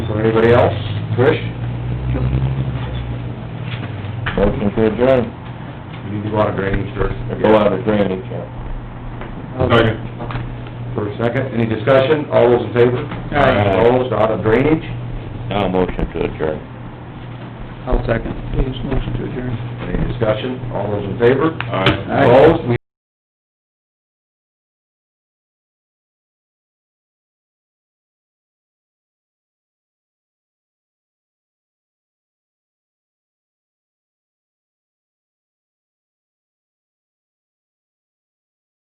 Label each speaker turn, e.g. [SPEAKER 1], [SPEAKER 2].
[SPEAKER 1] Anybody else? Trish?
[SPEAKER 2] Motion to adjourn,
[SPEAKER 1] We need to go out of drainage first.
[SPEAKER 2] go out of drainage, yeah.
[SPEAKER 3] Second.
[SPEAKER 1] For a second, any discussion? All those in favor?
[SPEAKER 3] Aye.
[SPEAKER 1] Opposed, out of drainage?
[SPEAKER 2] Now motion to adjourn.
[SPEAKER 4] I'll second. Dave's motion to adjourn.
[SPEAKER 1] Any discussion? All those in favor?
[SPEAKER 3] Aye.
[SPEAKER 1] Opposed, we